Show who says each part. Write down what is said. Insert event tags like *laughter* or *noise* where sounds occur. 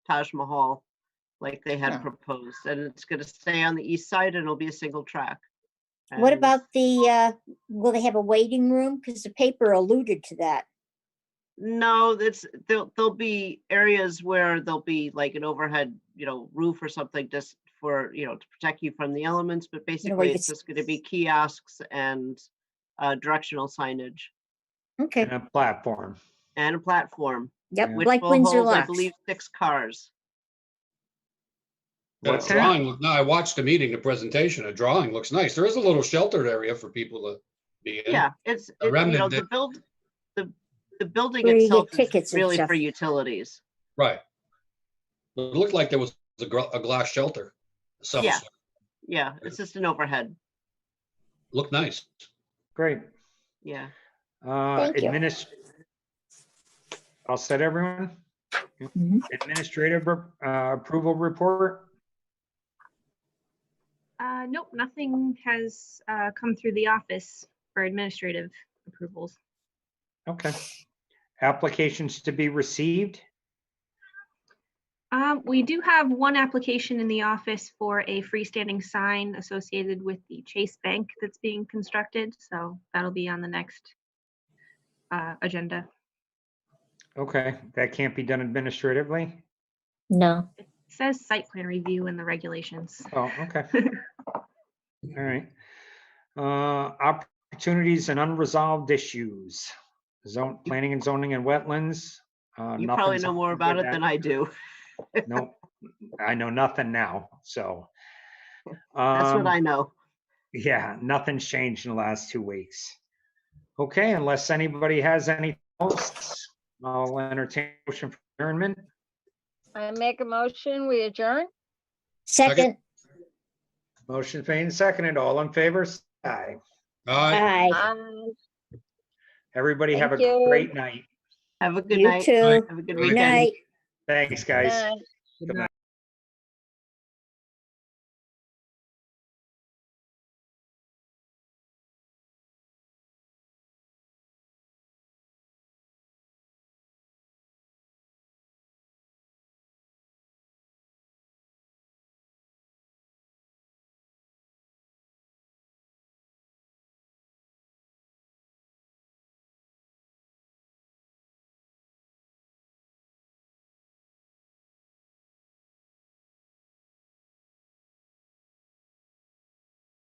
Speaker 1: Taj Mahal, like they
Speaker 2: Yeah.
Speaker 1: had proposed, and it's gonna stay on the east side and it'll be a single track.
Speaker 3: What
Speaker 1: And
Speaker 3: about the, uh, will they have a waiting room? Because the paper alluded to that.
Speaker 1: No, that's, there'll, there'll be areas where there'll be like an overhead, you know, roof or something just for, you know, to protect you from the elements, but
Speaker 3: know, where
Speaker 1: basically
Speaker 3: you
Speaker 1: it's
Speaker 3: could s-
Speaker 1: just gonna be kiosks and uh, directional signage
Speaker 3: Okay,
Speaker 4: and a platform.
Speaker 1: and a platform,
Speaker 3: yep,
Speaker 4: Yeah.
Speaker 1: which
Speaker 3: like
Speaker 1: will
Speaker 3: Windsor
Speaker 1: hold, I
Speaker 3: Locks.
Speaker 1: believe, six cars.
Speaker 5: But
Speaker 4: What's
Speaker 5: a
Speaker 4: that?
Speaker 5: drawing, look- no, I watched the meeting, the presentation, a drawing looks nice. There is a little sheltered area for people to be in.
Speaker 1: Yeah, it's, it- you know,
Speaker 5: remnant
Speaker 1: the
Speaker 5: that-
Speaker 1: build, the, the building
Speaker 3: Where you get
Speaker 1: itself
Speaker 3: tickets
Speaker 1: is
Speaker 3: and
Speaker 1: really
Speaker 3: stuff.
Speaker 1: for utilities.
Speaker 5: Right. But It looked like there was a gr- a glass shelter. of some
Speaker 1: Yeah.
Speaker 5: sort.
Speaker 1: Yeah, it's just an overhead.
Speaker 5: Looked nice.
Speaker 4: Great.
Speaker 1: Yeah.
Speaker 4: Uh,
Speaker 3: Thank you.
Speaker 4: adminis. I'll set everyone.
Speaker 3: Mhm.
Speaker 4: Administrative uh, approval report.
Speaker 6: Uh, nope, nothing has uh, come through the office for administrative approvals.
Speaker 4: Okay. Applications to be received.
Speaker 6: Um, we do have one application in the office for a freestanding sign associated with the Chase Bank that's being constructed, so that'll be on the next uh, agenda.
Speaker 4: Okay, that can't be done administratively.
Speaker 3: No,
Speaker 6: It says site plan review in the regulations.
Speaker 4: Oh,
Speaker 3: *laughs*
Speaker 4: okay. All right. Uh, Opportunities and unresolved issues. Zone, planning and zoning and wetlands. uh,
Speaker 1: You probably
Speaker 4: nothing's
Speaker 1: know
Speaker 4: up
Speaker 1: more
Speaker 4: with
Speaker 1: about it
Speaker 4: that.
Speaker 1: than I do.
Speaker 4: Nope, I know nothing now, so.
Speaker 1: That's
Speaker 4: um,
Speaker 1: what I know.
Speaker 4: Yeah, nothing's changed in the last two weeks. Okay, unless anybody has anything else, I'll entertain a motion for adjournment.
Speaker 7: I make a motion, we adjourn?
Speaker 3: second,
Speaker 4: Motion made and seconded. All in favor? say Aye.
Speaker 1: Uh,
Speaker 5: All right.
Speaker 3: aye,
Speaker 7: Aye.
Speaker 4: Everybody have a
Speaker 7: Thank you.
Speaker 4: great night.
Speaker 1: Have a good
Speaker 3: you
Speaker 1: night.
Speaker 3: too,
Speaker 1: Have a good
Speaker 5: Good
Speaker 1: weekend.
Speaker 3: night.
Speaker 7: Um,
Speaker 4: Thanks, guys.
Speaker 7: Aye.